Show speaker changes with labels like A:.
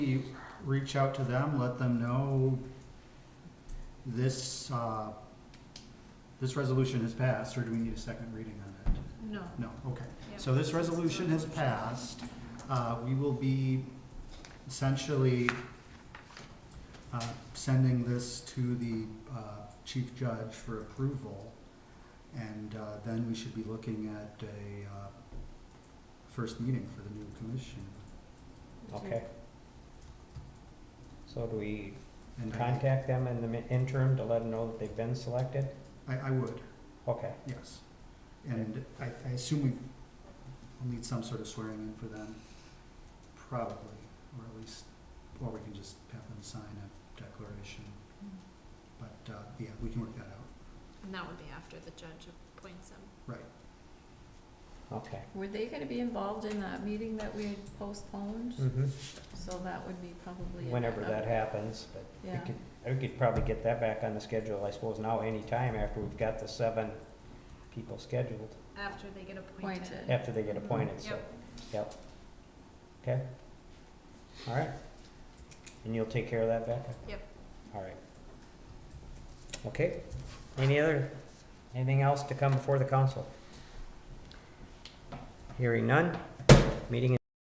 A: You reach out to them, let them know this, uh, this resolution has passed, or do we need a second reading on it?
B: No.
A: No, okay.
B: Yep.
A: So this resolution has passed. Uh, We will be essentially uh, sending this to the uh, chief judge for approval. And uh, then we should be looking at a uh, first meeting for the new commission.
C: Okay. So do we
A: And I-
C: contact them in the mi- interim to let them know that they've been selected?
A: I, I would.
C: Okay,
A: Yes. And I, I assume we will need some sort of swearing in for them, probably, or at least, or we can just have them sign a declaration. But, uh, yeah, we can work that out.
B: And that would be after the judge appoints them.
C: okay.
D: Were they gonna be involved in that meeting that we had postponed?
C: Mhm.
D: So that would be probably. in
C: Whenever that
D: another-
C: happens, but we
D: Yeah.
C: could, we could probably get that back on the schedule, I suppose, now anytime after we've got the seven people scheduled,
B: After they get appointed.
D: Appointed.
C: after they get appointed, so.
B: Yep.
C: Yep. Okay. All right. And you'll take care of that, Becca?
B: Yep.
C: All right. Okay. Any other, anything else to come before the council? Hearing none. Meeting